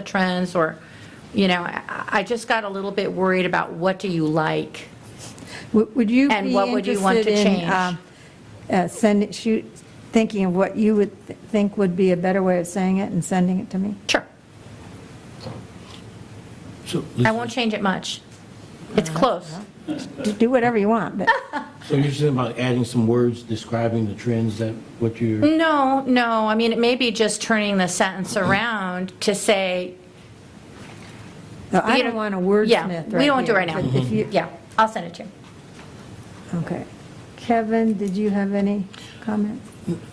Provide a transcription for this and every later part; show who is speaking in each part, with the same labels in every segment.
Speaker 1: the trends or, you know, I I just got a little bit worried about what do you like?
Speaker 2: Would would you be
Speaker 1: And what would you want to
Speaker 2: interested in,
Speaker 1: change?
Speaker 2: um, uh, Send, shoot, thinking of what you would th- think would be a better way of saying it and sending it to me?
Speaker 1: Sure.
Speaker 3: So,
Speaker 1: I
Speaker 2: Mm-hmm.
Speaker 1: won't change it much. It's close.
Speaker 2: Do- Do whatever you want, but
Speaker 3: so you're saying about adding some words describing the trends that, what you're,
Speaker 1: No, no, I mean, it may be just turning the sentence around to say,
Speaker 2: no, I
Speaker 1: You
Speaker 2: don't
Speaker 1: know-
Speaker 2: want a
Speaker 1: yeah,
Speaker 2: wordsmith right
Speaker 1: we won't do it
Speaker 2: here,
Speaker 1: right now.
Speaker 2: but if you-
Speaker 1: yeah, I'll send it to you.
Speaker 2: Okay. Kevin, did you have any comments?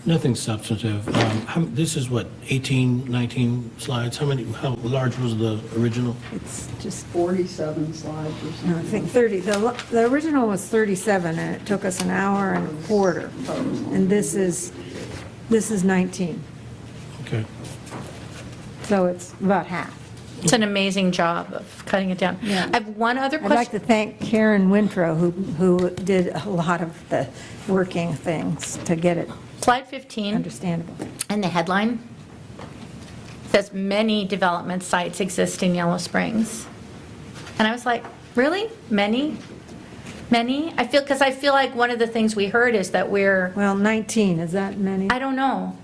Speaker 3: nothing substantive. Um, how- This is what, 18, 19 slides? How many, how large was the original?
Speaker 2: It's just,
Speaker 4: 47 slides or
Speaker 2: no, I think
Speaker 4: something.
Speaker 2: 30, the lo- the original was 37, and it took us an hour and a quarter, and this is, this is 19,
Speaker 3: Okay.
Speaker 2: so it's about half.
Speaker 1: It's an amazing job of cutting it down.
Speaker 2: Yeah.
Speaker 1: I have one other
Speaker 2: I'd like
Speaker 1: question.
Speaker 2: to thank Karen Winthrop, who, who did a lot of the working things to get it
Speaker 1: Slide 15,
Speaker 2: understandable.
Speaker 1: and the headline says, "Many development sites exist in Yellow Springs." And I was like, really? Many? Many? I feel, because I feel like one of the things we heard is that we're,
Speaker 2: Well, 19, is that many?
Speaker 1: I don't know.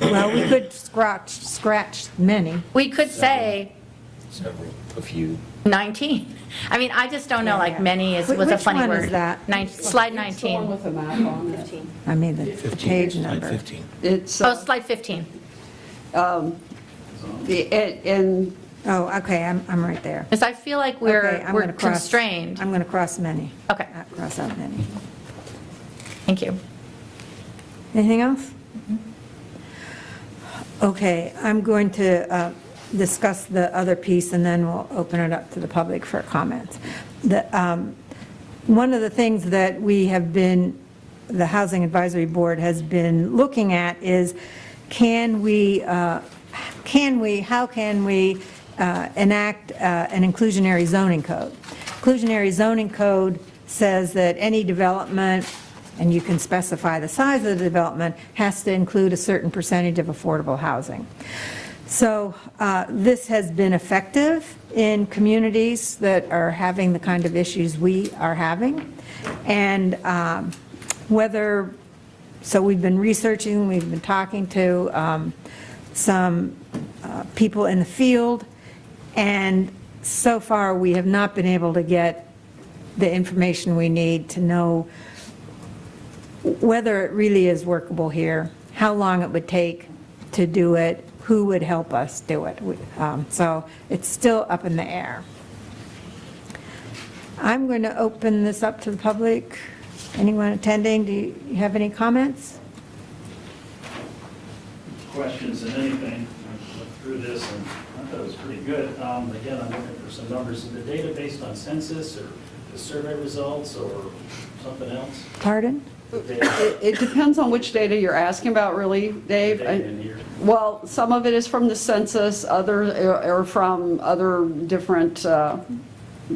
Speaker 2: Well, we could scratch, scratch many.
Speaker 1: We could say
Speaker 5: Several, a few.
Speaker 1: 19. I mean, I just don't know, like, many is,
Speaker 2: Wh-
Speaker 1: was a
Speaker 2: which
Speaker 1: funny word.
Speaker 2: one is that?
Speaker 1: Nine- Slide
Speaker 4: It's the one
Speaker 1: 19.
Speaker 4: with the map on it.
Speaker 2: I mean, the the
Speaker 3: 15,
Speaker 2: page
Speaker 3: slide
Speaker 2: number.
Speaker 3: 15.
Speaker 4: It's,
Speaker 1: Oh,
Speaker 4: uh,
Speaker 1: slide 15.
Speaker 4: the- and- and
Speaker 2: Oh, okay, I'm, I'm right there.
Speaker 1: Because I feel like
Speaker 2: Okay,
Speaker 1: we're,
Speaker 2: I'm
Speaker 1: we're
Speaker 2: gonna cross-
Speaker 1: constrained.
Speaker 2: I'm going to cross many.
Speaker 1: Okay.
Speaker 2: Uh, Cross out many.
Speaker 1: Thank you.
Speaker 2: Anything else? Okay, I'm going to uh, discuss the other piece, and then we'll open it up to the public for comments. The, um, One of the things that we have been, the Housing Advisory Board has been looking at is, can we, uh, can we, how can we uh, enact uh, an inclusionary zoning code? Inclusionary zoning code says that any development and you can specify the size of the development, has to include a certain percentage of affordable housing. So uh, this has been effective in communities that are having the kind of issues we are having. And um, whether, so we've been researching, we've been talking to um, some uh, people in the field, and so far, we have not been able to get the information we need to know whether it really is workable here, how long it would take to do it, who would help us do it. We- um, So it's still up in the air. I'm going to open this up to the public. Anyone attending, do you you have any comments?
Speaker 6: questions and anything. I looked through this and I thought it was pretty good. Um, Again, I'm looking for some numbers. Is the data based on census or the survey results or something else?
Speaker 2: Pardon?
Speaker 6: The data-
Speaker 4: it it depends on which data you're asking about, really,
Speaker 6: the
Speaker 4: Dave.
Speaker 6: data in here.
Speaker 4: Well, some of it is from the census, other, uh, or from other different, uh,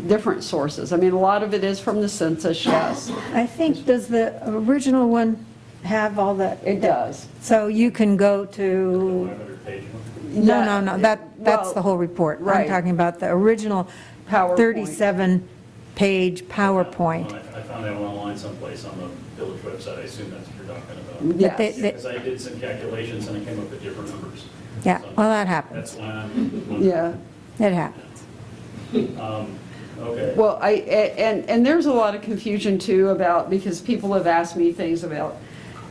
Speaker 4: different sources. I mean, a lot of it is from the census, yes.
Speaker 2: I think, does the original one have all the?
Speaker 4: It does.
Speaker 2: So you can go
Speaker 6: The
Speaker 2: to,
Speaker 6: 100-page one.
Speaker 2: no, no, no, that,
Speaker 4: Yeah,
Speaker 2: that's
Speaker 4: well,
Speaker 2: the whole report. I'm
Speaker 4: right.
Speaker 2: talking about the original
Speaker 4: PowerPoint.
Speaker 2: 37-page PowerPoint.
Speaker 6: Well, Um, I I found that one online someplace on the village website. I assume that's what you're talking about.
Speaker 2: But they-
Speaker 4: Yes.
Speaker 2: they-
Speaker 6: Because I did some calculations and I came up with different numbers.
Speaker 2: Yeah,
Speaker 6: So
Speaker 2: well, that
Speaker 6: That's
Speaker 2: happens.
Speaker 6: why I'm. wondering.
Speaker 4: Yeah.
Speaker 2: It happens.
Speaker 6: Okay.
Speaker 4: Well, I, a- and, and there's a lot of confusion too about, because people have asked me things about,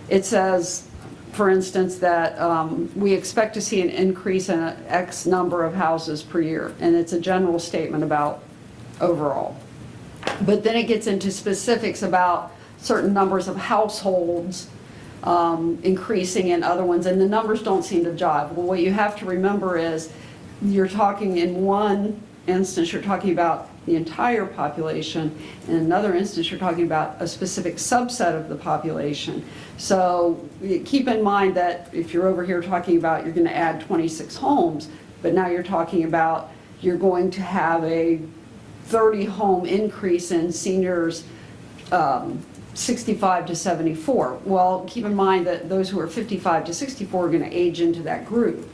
Speaker 4: it says, for instance, that um, we expect to see an increase in X number of houses per year, and it's a general statement about overall. But then it gets into specifics about certain numbers of households um, increasing in other ones, and the numbers don't seem to jive. Well, what you have to remember is, you're talking in one instance, you're talking about the entire population, in another instance, you're talking about a specific subset of the population. So y- keep in mind that if you're over here talking about, you're going to add 26 homes, but now you're talking about, you're going to have a 30-home increase in seniors um, 65 to 74. Well, keep in mind that those who are 55 to 64 are going to age into that group.